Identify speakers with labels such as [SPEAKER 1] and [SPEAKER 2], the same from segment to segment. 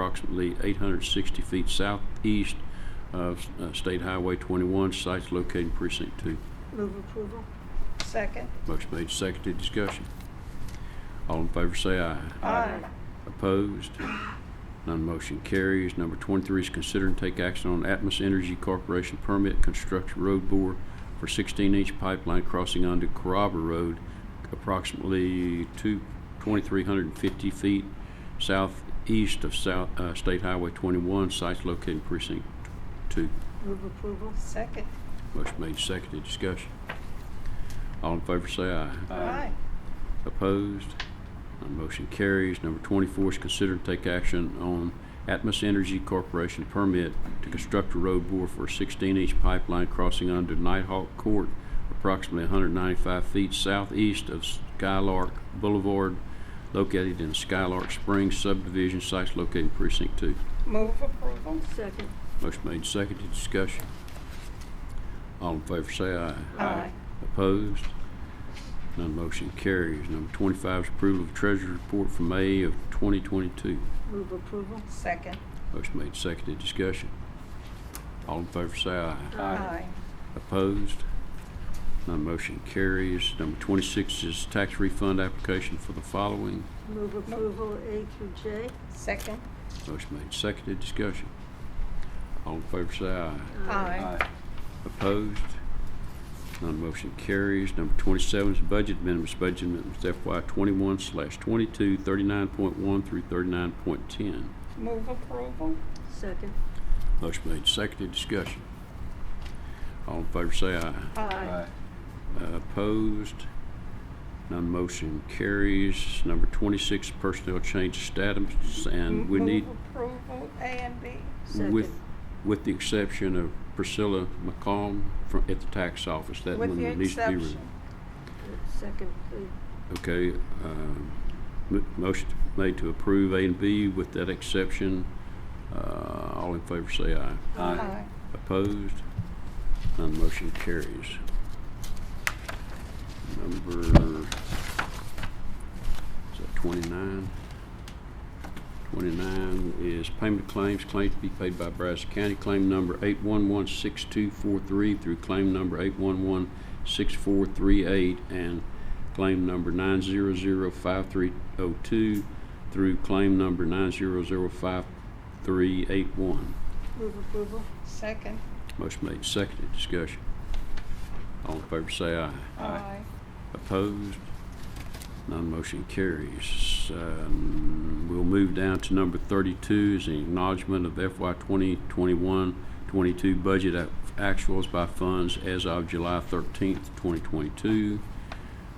[SPEAKER 1] approximately 860 feet southeast of uh, State Highway 21, sites located in precinct two.
[SPEAKER 2] Move approval. Second.
[SPEAKER 1] Motion made, seconded, discussion. All in favor say aye.
[SPEAKER 2] Aye.
[SPEAKER 1] Opposed? None motion carries. Number 23 is consider and take action on Atmos Energy Corporation permit construction road bore for 16-inch pipeline crossing onto Carrabba Road, approximately two- 2,350 feet southeast of South, uh, State Highway 21, sites located in precinct 2.
[SPEAKER 2] Move approval. Second.
[SPEAKER 1] Motion made, seconded, discussion. All in favor say aye.
[SPEAKER 2] Aye.
[SPEAKER 1] Opposed? None motion carries. Number 24 is consider and take action on Atmos Energy Corporation permit to construct a road bore for a 16-inch pipeline crossing under Nighthawk Court, approximately 195 feet southeast of Skylark Boulevard, located in Skylark Springs subdivision, sites located in precinct 2.
[SPEAKER 2] Move approval.
[SPEAKER 3] Second.
[SPEAKER 1] Motion made, seconded, discussion. All in favor say aye.
[SPEAKER 2] Aye.
[SPEAKER 1] Opposed? None motion carries. Number 25 is approval of treasurer's report for May of 2022.
[SPEAKER 2] Move approval. Second.
[SPEAKER 1] Motion made, seconded, discussion. All in favor say aye.
[SPEAKER 2] Aye.
[SPEAKER 1] Opposed? None motion carries. Number 26 is tax refund application for the following.
[SPEAKER 3] Move approval A through J.
[SPEAKER 2] Second.
[SPEAKER 1] Motion made, seconded, discussion. All in favor say aye.
[SPEAKER 2] Aye.
[SPEAKER 1] Opposed? None motion carries. Number 27 is budget amendments. Budget amendments FY 21 slash 22, 39.1 through 39.10.
[SPEAKER 2] Move approval.
[SPEAKER 3] Second.
[SPEAKER 1] Motion made, seconded, discussion. All in favor say aye.
[SPEAKER 2] Aye.
[SPEAKER 1] Uh, Opposed? None motion carries. Number 26, personnel change status, and we need,
[SPEAKER 2] Move approval A and B.
[SPEAKER 1] with,
[SPEAKER 3] Second.
[SPEAKER 1] with the exception of Priscilla McComb fro- at the tax office, that one
[SPEAKER 2] With the
[SPEAKER 1] needs to be removed.
[SPEAKER 2] exception.
[SPEAKER 3] Second, please.
[SPEAKER 1] Okay, um, m- motion made to approve A and B with that exception. Uh, All in favor say aye.
[SPEAKER 2] Aye.
[SPEAKER 1] Opposed? None motion carries. Number, is that 29? 29 is payment of claims, claim to be paid by Brazos County, claim number 8116243 through claim number 8116438 and claim number 9005302 through claim number 9005381.
[SPEAKER 3] Move approval.
[SPEAKER 2] Second.
[SPEAKER 1] Motion made, seconded, discussion. All in favor say aye.
[SPEAKER 2] Aye.
[SPEAKER 1] Opposed? None motion carries. Um, We'll move down to number 32 is the acknowledgement of FY 2021-22 budget ac- actuals by funds as of July 13th, 2022.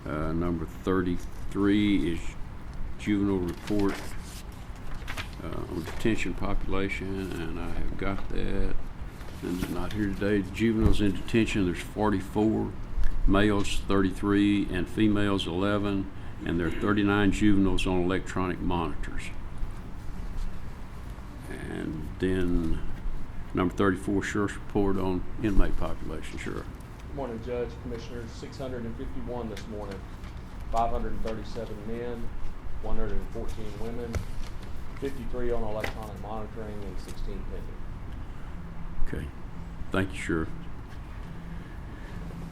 [SPEAKER 1] Uh, Number 33 is juvenile report uh, on detention population, and I have got that. And it's not here today. Juveniles in detention, there's 44, males 33, and females 11, and there are 39 juveniles on electronic monitors. And then number 34, sheriff's report on inmate population, sheriff.
[SPEAKER 4] Morning, Judge, Commissioners, six hundred and fifty-one this morning, five hundred and thirty-seven men, one hundred and fourteen women, fifty-three on electronic monitoring, and sixteen pending.
[SPEAKER 1] Okay. Thank you, Sheriff.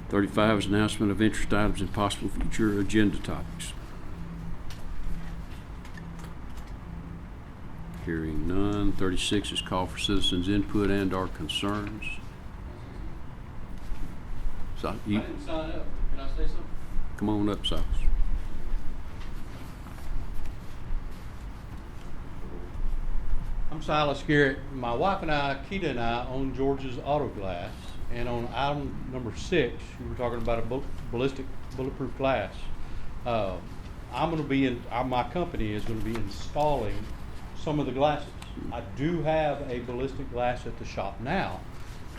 [SPEAKER 1] Thirty-five is announcement of interest items and possible future agenda topics. Hearing none. Thirty-six is call for citizens' input and our concerns. So, you,
[SPEAKER 5] sign up. Can I say something?
[SPEAKER 1] come on up, Silas.
[SPEAKER 5] I'm Silas Garrett. My wife and I, Keita and I, own George's Auto Glass. And on item number six, you were talking about a bul- ballistic bulletproof glass. Uh, I'm going to be in, uh, my company is going to be installing some of the glasses. I do have a ballistic glass at the shop now.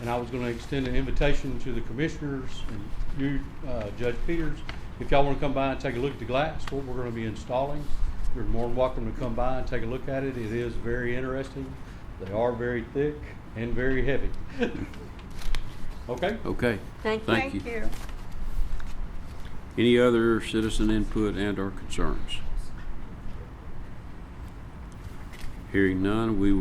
[SPEAKER 5] And I was going to extend an invitation to the commissioners and you, uh, Judge Peters, if y'all want to come by and take a look at the glass, what we're going to be installing. You're more than welcome to come by and take a look at it. It is very interesting. They are very thick and very heavy. Okay?
[SPEAKER 1] Okay.
[SPEAKER 3] Thank
[SPEAKER 1] Thank
[SPEAKER 3] you.
[SPEAKER 2] Thank
[SPEAKER 1] you.
[SPEAKER 2] you.
[SPEAKER 1] Any other citizen input and our concerns? Hearing none, we will